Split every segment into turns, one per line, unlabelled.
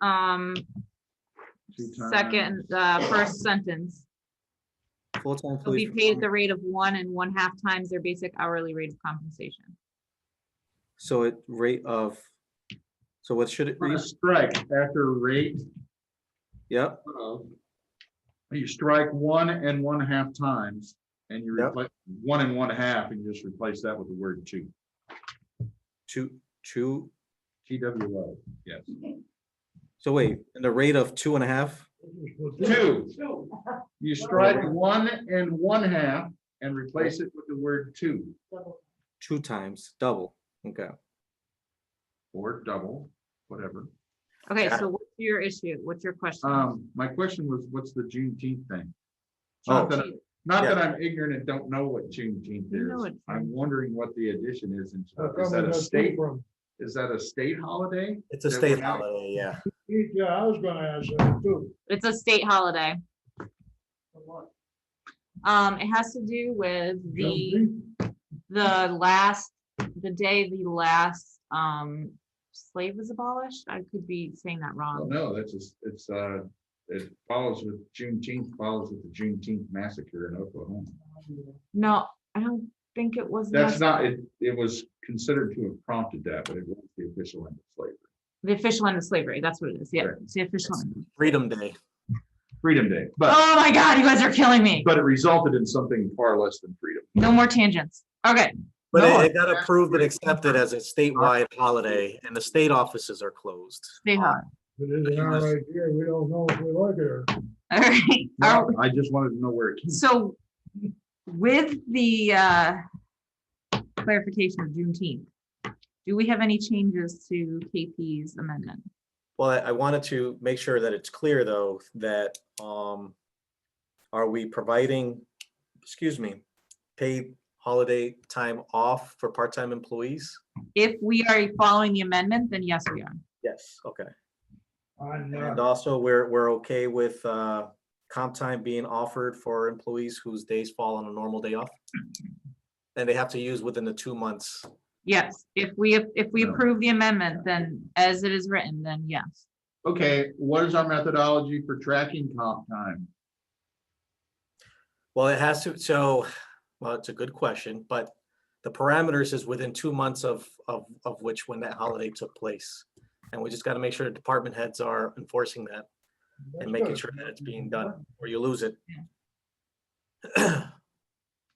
um,
Two-time.
second, uh, first sentence.
Full-time
They'll be
police.
paid at the rate of one and one-half times their basic hourly rate of compensation.
So it rate of, so what should it
We're gonna
read?
Strike after rate
Yep,
of, you strike one and one half times and you
Yep.
replace one and one half and you just replace that with the word two.
two, two,
T W O, yes.
so wait, and the rate of two and a half?
Two. You strike one and one half and replace it with the word two
Two times, double, okay.
or double, whatever.
Okay,
Yeah.
so what's your issue? What's your question?
Um, my question was, what's the Juneteenth thing?
Oh.
Not that, not that I'm ignorant and don't know what Juneteenth
You know
is.
it.
I'm wondering what the addition is. and
How
stuff.
come
Is
they
that a
don't
state,
speak from-
is that a state holiday?
It's a
That
state
we're not-
holiday, yeah.
Yeah, I was gonna ask that too.
It's a state holiday. Um, it has to do with the, the last, the day the last, um, slave was abolished. I could be saying that
Well,
wrong.
Oh, no, that's just, it's, uh, it follows with Juneteenth, follows with the Juneteenth massacre in Oklahoma.
No, I don't think it was.
That's
the-
not, it, it was considered to have prompted that, but it wasn't the official end of slavery.
The official end of slavery. That's what it is. Yeah,
Correct.
it's the official. end.
Freedom Day.
Freedom Day, but,
Oh my God, you guys are killing me.
but it resulted in something far less than freedom.
No more tangents. Okay,
But
No,
it- it got approved and
absolutely.
accepted as a statewide holiday and the state offices are closed.
stay hot.
It is our idea, we don't know if we like it or.
All right. Are-
I just wanted to know where it came.
So with the uh, clarification of Juneteenth, do we have any changes to KP's amendment?
Well, I- I wanted to make sure that it's clear, though, that um, are we providing, excuse me, paid holiday time off for part-time employees?
If we are following the amendment, then yes, we are.
Yes. Okay.
I'm
And
not.
also, we're, we're okay with uh, comp time being offered for employees whose days fall on a normal day off? And they have to use within the two months.
Yes, if we, if we
No.
approve the amendment, then as it is written, then yes.
Okay, what is our methodology for tracking comp time?
Well, it has to, so, well, it's a good question, but the parameters is within two months of, of, of which when that holiday took place. And we just got to make sure the department heads are enforcing that and making sure that it's being done, or you lose it.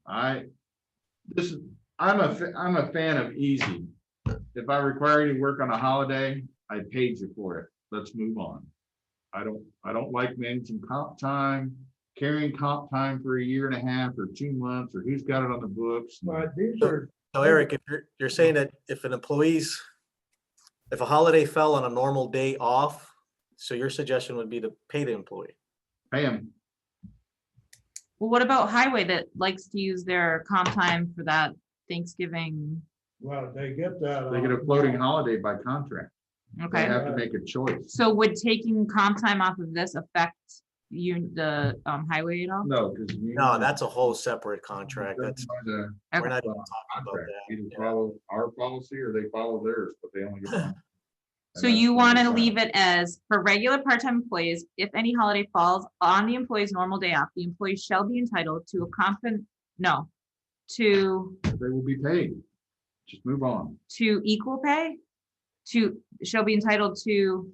I, this is, I'm a, fa- I'm a fan of easy. If I require you to work on a holiday, I paid you for it. Let's move on. I don't, I don't like managing comp time, carrying comp time for a year and a half or two months, or who's got it on the books.
But these are,
So Eric, if you're, you're saying that if an employee's, if a holiday fell on a normal day off, so your suggestion would be to pay the employee.
Pay 'em.
Well, what about highway that likes to use their comp time for that Thanksgiving?
well, they get that.
They get a
off.
floating holiday by contract. They
Okay,
have to make a choice.
so would taking comp time off of this affect you, the um, highway at all?
No, because.
No, that's a whole separate contract. That's, we're not even talking about
contract,
that.
either
yeah.
follow our policy or they follow theirs, but they only get. one.
So
And
you
that's
want
the
to
design.
leave it as for regular part-time employees, if any holiday falls on the employee's normal day off, the employee shall be entitled to a compen, no, to,
They will be paid. Just move on.
to equal pay? To, shall be entitled to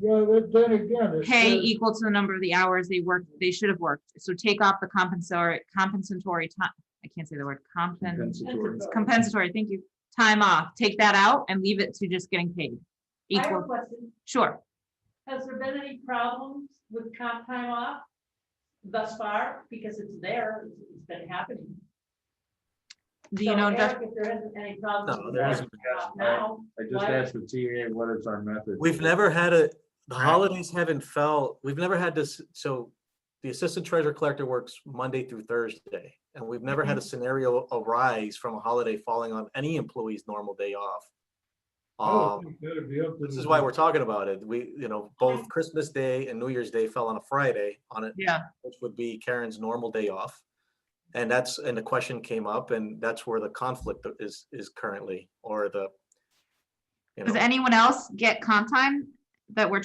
Yeah, but then again. it
pay
says-
equal to the number of the hours they worked, they should have worked. So take off the compensatory, compensatory time, I can't say the word compen,
Compensatory.
it's compensatory, thank you, time off. Take that out and leave it to just getting paid.
I have a
Equal,
question.
sure.
Has there been any problems with comp time off thus far? Because it's there, it's- it's been happening.
Do you
So,
know,
Eric,
Jeff-
If there isn't any problems.
No,
with
there
comp
isn't.
time off Now,
I just asked the TA what is our method.
We've never had a, the
Right.
holidays haven't fell, we've never had this, so the assistant treasurer collector works Monday through Thursday. And we've never had a scenario arise from a holiday falling on any employee's normal day off.
I don't
Um,
think that'd Oh, be up to
This is
the-
why we're talking about it. We, you know, both Christmas Day and New Year's Day fell on a Friday on it,
yeah,
which would be Karen's normal day off. And that's, and the question came up and that's where the conflict is, is currently, or the. you
does
know.
anyone else get comp time that we're